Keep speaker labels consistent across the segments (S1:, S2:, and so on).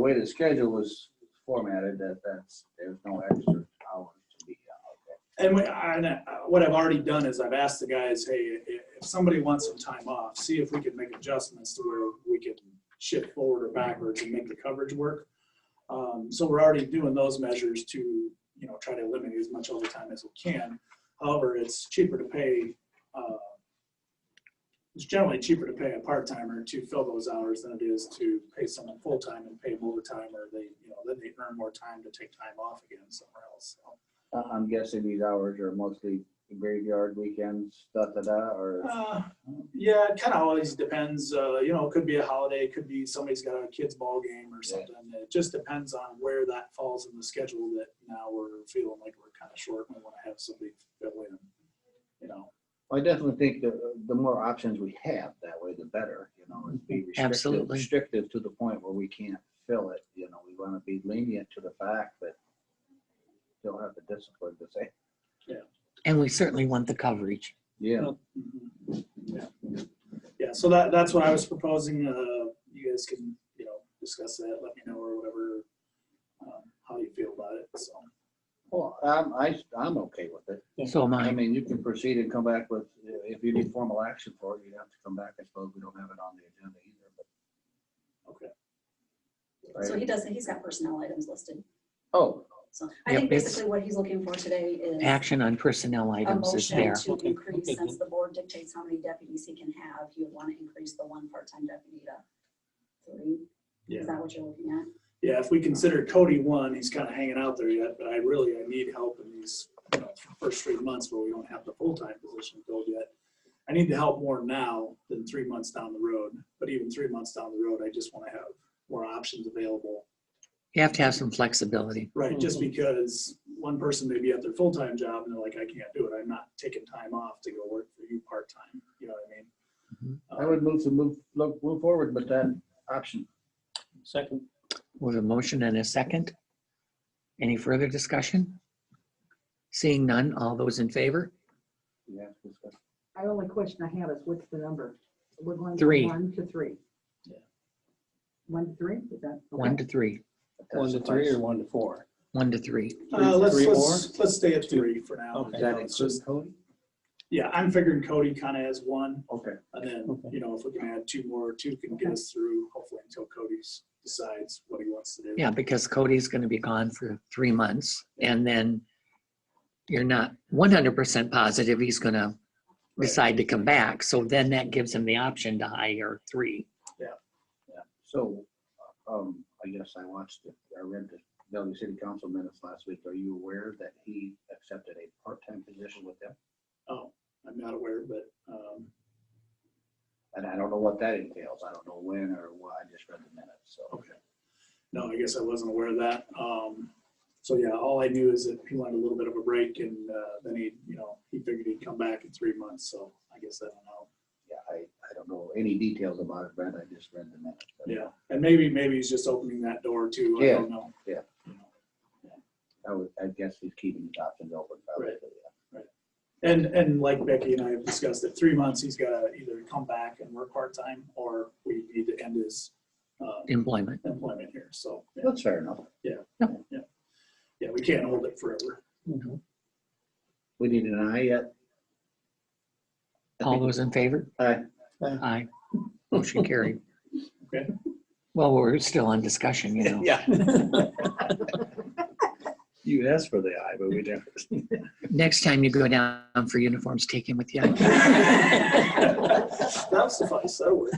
S1: The way the schedule was formatted, that, that's, there's no extra hours to be out there.
S2: And we- I- and I- what I've already done is I've asked the guys, hey, i- if somebody wants some time off, see if we could make adjustments to where we can shift forward or backwards and make the coverage work. Um, So we're already doing those measures to, you know, try to eliminate as much overtime as we can. However, it's cheaper to pay, uh, it's generally cheaper to pay a part-timer to fill those hours than it is to pay someone full-time and pay them overtime or they, you know, then they earn more time to take time off again somewhere else. So
S1: I- I'm guessing these hours are mostly graveyard weekends, da da da, or,
S2: Uh, yeah, it kind of always depends. Uh, you know, it could be a holiday, it could be somebody's got a kid's ball game or
S1: Yeah.
S2: something. It just depends on where that falls in the schedule that now we're feeling like we're kind of short and we want to have somebody fill in. You know,
S1: I definitely think the, the more options we have, that way the better, you know, and be restrictive,
S3: Absolutely.
S1: restrictive to the point where we can't fill it, you know, we want to be lenient to the fact that still have the discipline to say,
S3: And we certainly want the coverage.
S1: yeah,
S2: Mm-hmm. yeah. Yeah, so that, that's what I was proposing. Uh, you guys can, you know, discuss that, let me know or whatever, um, how you feel about it. So,
S1: well, I'm, I, am okay with it.
S3: So am
S1: I
S3: I.
S1: mean, you can proceed and come back with, if you need formal action for it, you'd have to come back, I suppose, we don't have it on the agenda either, but.
S2: Okay.
S4: So
S1: Right.
S4: he does, he's got personnel items listed.
S1: Oh,
S4: So I
S3: Yep,
S4: think
S3: it's-
S4: basically what he's looking for today is
S3: Action on personnel
S4: a
S3: items is
S4: motion
S3: there.
S4: to increase, since the board dictates how many deputies he can have, he would want to increase the one part-time deputy to three.
S2: Yeah.
S4: Is that what you're looking at?
S2: Yeah, if we consider Cody one, he's kind of hanging out there yet, but I really, I need help in these you know, first three months where we don't have the full-time position filled yet. I need the help more now than three months down the road, but even three months down the road, I just want to have more options available.
S3: You have to have some flexibility.
S2: Right, just because one person may be at their full-time job and they're like, I can't do it, I'm not taking time off to go work for you part-time, you know what I
S1: Mm-hmm. I
S2: mean? Uh,
S1: would move to move, look, move forward, but that option,
S5: Second,
S3: With a motion and a second. Any further discussion? Seeing none, all those in favor?
S1: you have to discuss.
S6: I only question I have is what's the number? We're going
S3: Three.
S6: from one to three.
S2: Yeah.
S6: One to three, is that?
S3: One
S6: okay.
S3: to three,
S1: But that
S5: one to three
S1: suffices.
S5: or one to four?
S3: one to three.
S2: Uh, let's,
S5: Three more?
S2: let's, let's stay at three for now.
S5: Okay.
S1: Does that
S2: It's just-
S1: include Cody?
S2: Yeah, I'm figuring Cody kind of has one.
S1: Okay,
S2: And then,
S5: Okay.
S2: you know, if we can add two more, two can get us through hopefully until Cody's decides what he wants to do.
S3: Yeah, because Cody's going to be gone for three months and then you're not 100% positive he's going to
S2: Right.
S3: decide to come back. So then that gives him the option to hire three.
S1: yeah, so, um, I guess I watched, it. I read the Bellevue City Council minutes last week, are you aware that he accepted a part-time position with them?
S2: Oh, I'm not aware, but, um,
S1: And I don't know what that entails, I don't know when or what, I just read the minutes, so.
S2: okay. No, I guess I wasn't aware of that. Um, so yeah, all I knew is that he wanted a little bit of a break and, uh, then he, you know, he figured he'd come back in three months. So I guess I don't know.
S1: Yeah, I, I don't know any details about it, Brent, I just read the minutes. but-
S2: Yeah. And maybe, maybe he's just opening that door too. I don't know.
S1: Yeah,
S2: you know.
S1: I would, I guess he's keeping his options open. probably, yeah.
S2: And, and like Becky and I have discussed, at three months, he's got to either come back and work part-time, or we need to end his uh,
S3: Employment.
S2: employment here. So, yeah.
S1: That's fair enough.
S2: yeah, we can't hold it forever.
S1: We need an eye yet? I
S3: All
S1: think-
S3: those in favor?
S1: Aye.
S3: Aye. Motion carried.
S2: Okay.
S3: Well, we're still on discussion, you know.
S1: Yeah. You asked for the eye, but we didn't.
S3: Next time you go down for uniforms, take him with you.
S2: That'll suffice, that'll work.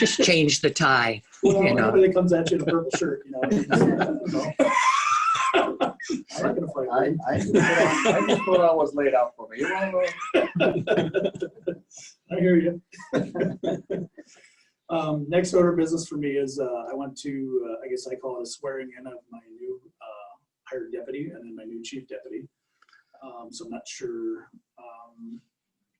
S3: Just change the tie.
S2: Well,
S3: You know.
S2: Everybody comes at you in a purple shirt, you know. you just, I don't know. I'm not gonna fight
S1: I,
S2: you.
S1: I just thought I was laid out for me. You wanna go?
S2: I hear you. Um, next order of business for me is, uh, I went to, uh, I guess I call it a swearing in of my new, uh, hired deputy and then my new chief deputy. Um, so I'm not sure, um,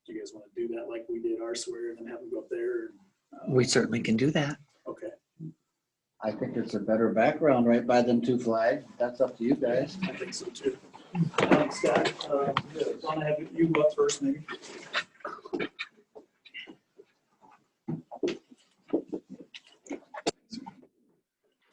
S2: do you guys want to do that like we did our swear and then have them go up there? Uh,
S3: We certainly can do that.
S2: Okay.
S1: I think it's a better background right by them two flags. That's up to you guys.
S2: I think so too. Um, Scott, uh, want to have you go up first maybe?